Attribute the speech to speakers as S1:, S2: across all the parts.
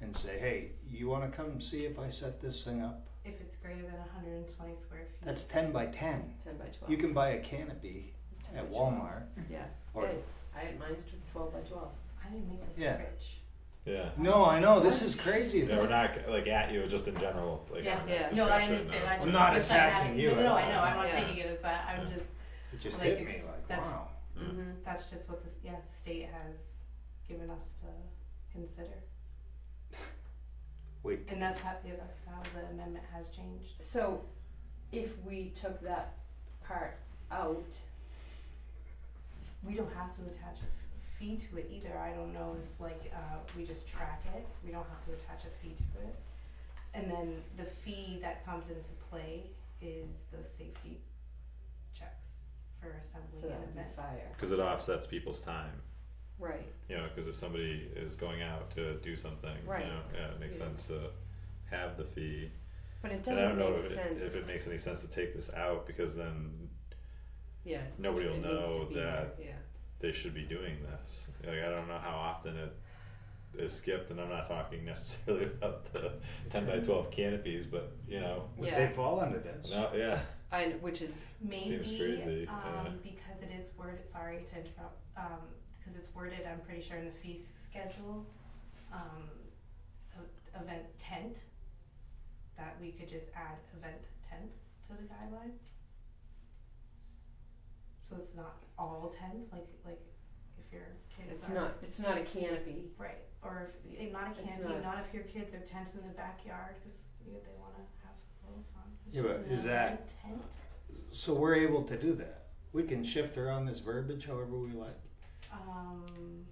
S1: and say, hey, you wanna come see if I set this thing up?
S2: If it's greater than hundred and twenty square feet.
S1: That's ten by ten.
S3: ten by twelve.
S1: You can buy a canopy
S3: It's 10
S1: at
S3: by 12.
S1: Walmart
S3: Yeah,
S1: or,
S3: Hey, I, mine's tw- twelve by twelve.
S2: I didn't make the
S1: Yeah.
S2: fridge.
S4: Yeah.
S1: no, I know, this is crazy
S4: Yeah,
S1: though.
S4: we're not like at you, just in general, like
S2: Yeah.
S4: on that
S3: Yeah.
S2: No, I
S4: discussion
S2: understand. I
S4: of-
S2: just,
S1: I'm not
S2: wish I had-
S1: attacking you
S2: No, no, no,
S1: at
S2: I know. I'm
S1: all.
S2: not
S3: Yeah.
S2: taking it as that. I'm
S4: Yeah.
S2: just.
S1: It just
S2: Like,
S1: hit me
S2: it's-
S1: like,
S2: that's-
S1: wow.
S4: Mm.
S3: Mm-hmm.
S2: That's just what the yeah the state has given us to consider,
S1: Wait,
S2: and that's how yeah, that's how the amendment has changed.
S3: So, if we took that part out,
S2: We don't have to attach a fee to it either. I don't know if like uh, we just track it. We don't have to attach a fee to it, and then the fee that comes into play is the safety checks for assembly
S3: so that
S2: and
S3: would be
S2: event.
S3: fire.
S4: Cause it offsets people's time,
S3: Right.
S4: you know, cause if somebody is going out to do something, you
S3: Right.
S4: know, yeah, it makes
S3: Yeah.
S4: sense to have the fee.
S3: But it
S4: And I
S3: doesn't
S4: don't know
S3: make
S4: if it,
S3: sense.
S4: if it makes any sense to take this out, because then
S3: Yeah.
S4: nobody will
S3: It needs to
S4: know
S3: be
S4: that
S3: there, Yeah.
S4: they should be doing this. Like, I don't know how often it is skipped, and I'm not talking necessarily about the ten by twelve canopies, but, you know,
S1: would
S3: Yeah.
S1: they fall under this?
S4: no, yeah,
S3: I, which is,
S2: Maybe
S4: crazy,
S2: um,
S4: yeah.
S2: because it is worded. Sorry to interrupt. Um, because it's worded, I'm pretty sure in the fee schedule, um, e- event tent. That we could just add event tent to the guideline. So it's not all tents, like like if your kids
S3: it's
S2: are
S3: not, it's not a canopy.
S2: right, or if eh, not a
S3: It's
S2: canopy,
S3: not-
S2: not, if your kids are tented in the backyard because you know, they want to have some little fun. It's
S1: Yeah,
S2: just
S1: but
S2: an
S1: is that-
S2: event tent?
S1: So we're able to do that. We can shift around this verbiage however we like.
S2: Um,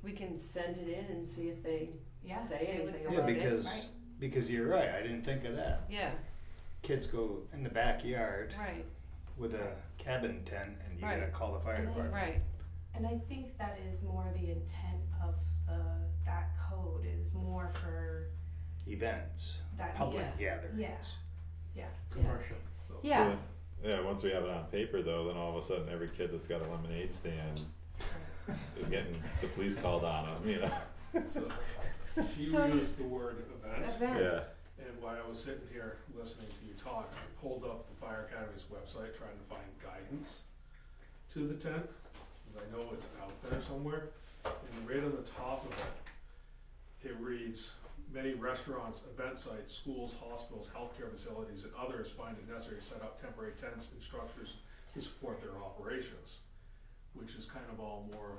S3: We can send it in and see if they,
S2: yeah,
S3: Say
S2: they would
S3: anything
S2: still
S1: Yeah,
S3: about it,
S2: want
S1: because
S2: right?
S1: because you're right. I didn't think of that.
S3: yeah,
S1: Kids go in the backyard
S3: right,
S1: with a cabin tent, and you
S3: Right.
S1: gotta call the fire
S2: And then-
S1: department.
S3: right.
S2: and I think that is more the intent of the that code is more for
S1: Events,
S2: that
S1: public
S3: Yeah.
S1: gatherings,
S2: Yeah.
S3: Commercial. Yeah,
S4: yeah, once we have it on paper though, then all of a sudden every kid that's got a lemonade stand is getting the police called on them, you know,
S5: So, She
S3: So-
S5: used the word event,
S3: event,
S4: yeah,
S5: and while I was sitting here listening to you talk, I pulled up the Fire Academy's website trying to find guidance to the tent, because I know it's out there somewhere, and right on the top of it, it reads, many restaurants, event sites, schools, hospitals, healthcare facilities, and others find it necessary to set up temporary tents and structures to support their operations, which is kind of all more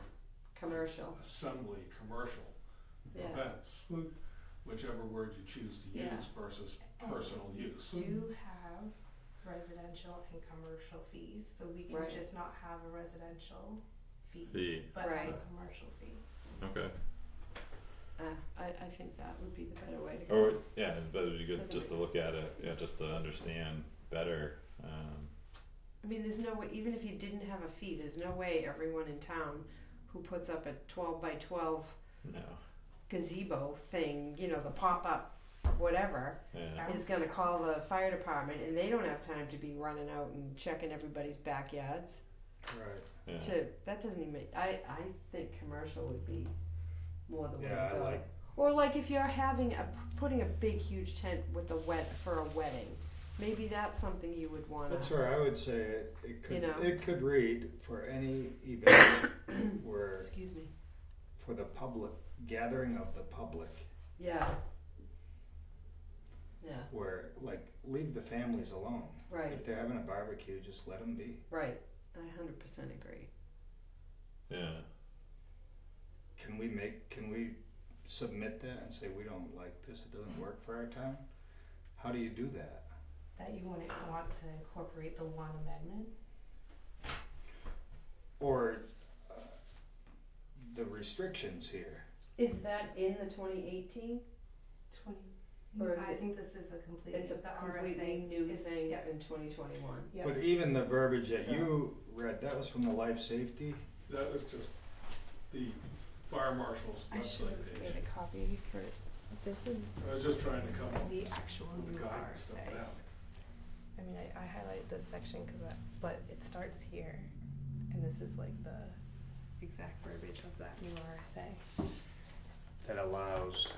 S3: commercial,
S5: assembly, commercial,
S3: yeah.
S5: events, whichever word you choose to
S3: Yeah.
S5: use versus personal use.
S2: We do have residential and commercial fees, so we can
S3: Right.
S2: just not have a residential fee,
S4: fee,
S2: but have a
S3: Right.
S2: commercial fee.
S4: okay.
S3: Uh, I, I think that would be the better way to go.
S4: Or, yeah, but it'd be good
S3: Doesn't
S4: just
S3: make-
S4: to look at it, yeah, just to understand better, um.
S3: I mean, there's no way, even if you didn't have a fee, there's no way everyone in town who puts up a 12 by 12
S4: No.
S3: gazebo thing, you know, the pop up whatever,
S4: Yeah.
S2: Right.
S3: is going to call the fire department and they don't have time to be running out and checking everybody's backyards.
S1: Right.
S4: Yeah.
S3: To That doesn't even make, I, I think commercial would be more the way
S1: Yeah,
S3: to
S1: I
S3: go.
S1: like.
S3: Or like if you're having a putting a big huge tent with a wet for a wedding, maybe that's something you would want
S1: That's
S3: to.
S1: where I would say it. It could
S3: know.
S1: it could read for any event where
S3: Excuse me.
S1: for the public gathering of the public
S3: Yeah. Yeah.
S1: where like leave the families alone.
S3: Right.
S1: If they're having a barbecue, just let them be.
S3: Right. I hundred percent agree.
S4: Yeah.
S1: Can we make, can we submit that and say we don't like this, it doesn't work for our town? How do you do that?
S2: That you wouldn't want to incorporate the one amendment,
S1: Or uh, the restrictions here?
S3: Is that in the twenty eighteen?
S2: twenty,
S3: Or is
S2: I
S3: it-
S2: think this is a complete,
S3: It's a
S2: the
S3: completely
S2: RSA
S3: new
S2: is-
S3: thing
S2: yeah.
S3: in twenty twenty one.
S2: yeah.
S1: But even the verbiage that
S3: So-
S1: you read, that was from the life safety?
S5: That was just the fire marshal's
S2: I should
S5: website
S2: have
S5: page.
S3: a copy for this is
S5: I was just trying to come up
S2: The actual
S5: with
S2: new
S5: the guidance
S2: RSA.
S5: stuff down.
S2: I mean, I, I highlighted this section because, but it starts here, and this is like the exact verbiage of that new RSA.
S1: That allows